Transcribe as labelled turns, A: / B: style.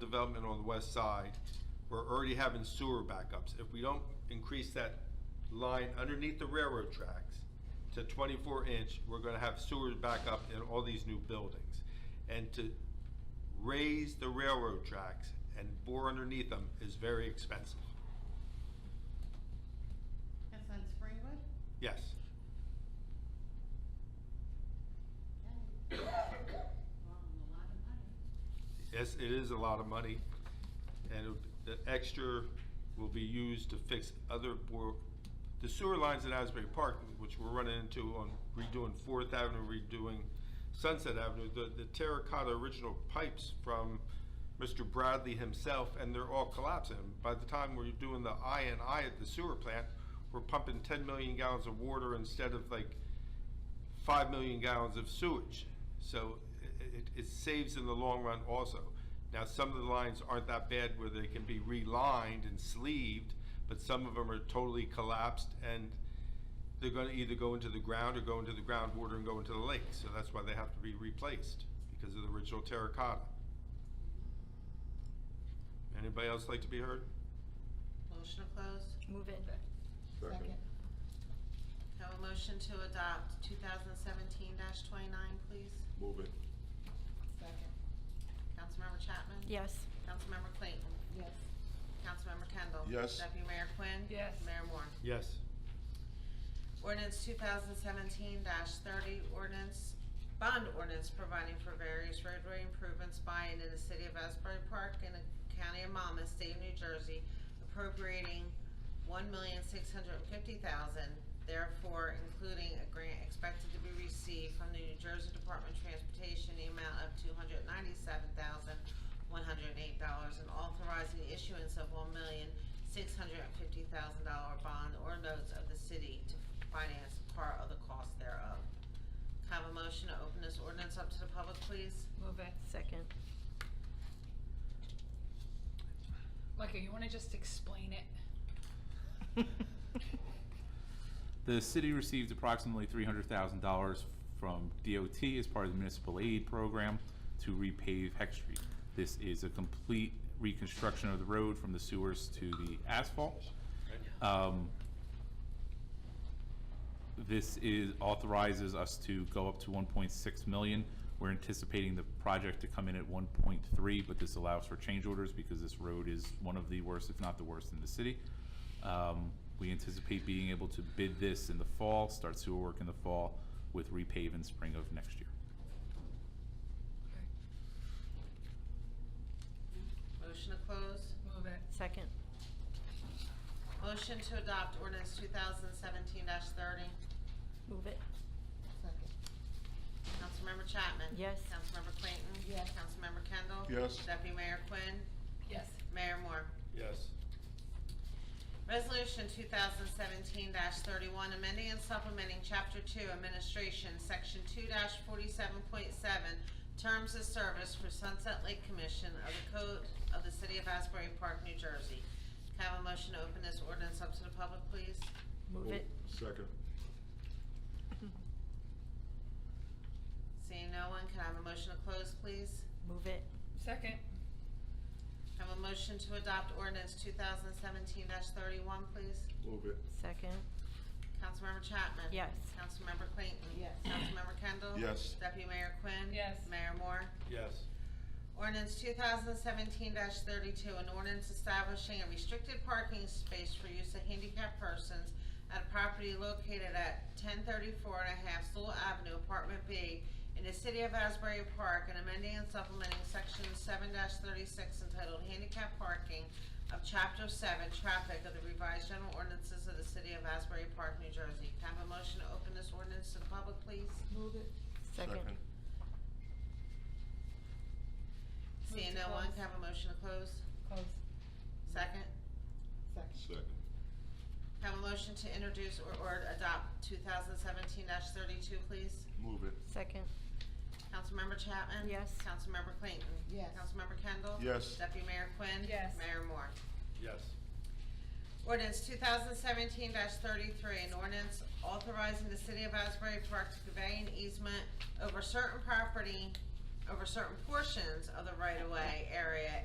A: development on the west side, we're already having sewer backups. If we don't increase that line underneath the railroad tracks to 24 inch, we're going to have sewer backup in all these new buildings. And to raise the railroad tracks and bore underneath them is very expensive.
B: That's on Springwood?
A: Yes.
B: Yeah. Well, a lot of money.
A: Yes, it is a lot of money, and it- the extra will be used to fix other, bor- the sewer lines in Asbury Park, which we're running into on redoing Fourth Avenue, redoing Sunset Avenue, the, the terracotta original pipes from Mr. Bradley himself, and they're all collapsing. By the time we're doing the I and I at the sewer plant, we're pumping ten million gallons of water instead of like 5 million gallons of sewage. So i- it, it saves in the long run also. Now, some of the lines aren't that bad where they can be relined and sleeved, but some of them are totally collapsed and they're going to either go into the ground or go into the groundwater and go into the lake. So that's why they have to be replaced because of the original terracotta. Anybody else like to be heard?
C: Motion to close.
D: Move it.
E: Second.
C: Have a motion to adopt 2017-29, please.
E: Move it.
B: Second,
C: Councilmember Chapman?
D: Yes.
C: Councilmember Clayton?
B: yes.
C: Councilmember Kendall?
E: Yes.
C: Deputy Mayor Quinn?
D: Yes.
C: Mayor Moore?
A: Yes.
C: Ordinance 2017-30, ordinance, bond ordinance providing for various roadway improvements by and in the city of Asbury Park in the county of Monmouth, state of New Jersey, appropriating $1,650,000, therefore including a grant expected to be received from the New Jersey Department of Transportation, the amount of $297,108, and authorizing the issuance of $1,650,000 bond or notes of the city to finance part of the cost thereof. Can I Have a motion to open this ordinance up to the public, please?
D: Move it. Second.
F: Micah, you want to just explain it?
G: The city received approximately $300,000 from DOT as part of the municipal aid program to repave Heck Street. This is a complete reconstruction of the road from the sewers to the asphalt. Um, This is, authorizes us to go up to 1.6 million. We're anticipating the project to come in at 1.3, but this allows for change orders because this road is one of the worst, if not the worst, in the city. Um, We anticipate being able to bid this in the fall, start sewer work in the fall, with repave in spring of next year.
C: Motion to close?
F: Move it.
D: Second.
C: Motion to adopt ordinance 2017-30.
D: Move it.
B: Second,
C: Councilmember Chapman?
D: Yes.
C: Councilmember Clayton?
B: Yes.
C: Councilmember Kendall?
E: Yes.
C: Deputy Mayor Quinn?
F: Yes.
C: Mayor Moore?
A: Yes.
C: Resolution 2017-31, amending and supplementing Chapter 2 Administration, Section 2-47.7, Terms of Service for Sunset Lake Commission of the Code of the City of Asbury Park, New Jersey. Can I have a motion to open this ordinance up to the public, please?
D: Move it.
E: Second.
C: Seeing no one, can I have a motion to close, please?
D: Move it.
F: Second.
C: Can I Have a motion to adopt ordinance 2017-31, please?
E: Move it.
D: Second.
C: Councilmember Chapman?
D: Yes.
C: Councilmember Clayton?
B: Yes.
C: Councilmember Kendall?
E: Yes.
C: Deputy Mayor Quinn?
F: Yes.
C: Mayor Moore?
A: Yes.
C: Ordinance 2017-32, an ordinance establishing a restricted parking space for use of handicapped persons at a property located at 1034 and a half Sewell Avenue, Apartment B, in the city of Asbury Park, and amending and supplementing Section 7-36 entitled Handicap Parking of Chapter 7 Traffic of the Revised General Ordinances of the city of Asbury Park, New Jersey. Can I have a motion to open this ordinance to the public, please?
B: move it,
D: Second.
C: Seeing no one, can I have a motion to close?
F: Close.
C: Second?
B: second,
E: Second.
C: Have a motion to introduce or, or adopt 2017-32, please.
E: Move it.
D: Second.
C: Councilmember Chapman?
D: Yes.
C: Councilmember Clayton?
B: Yes.
C: Councilmember Kendall?
E: Yes.
C: Deputy Mayor Quinn?
F: Yes.
C: Mayor Moore?
A: Yes.
C: Ordinance 2017-33, an ordinance authorizing the city of Asbury Park to convey an easement over certain property, over certain portions of the right-of-way area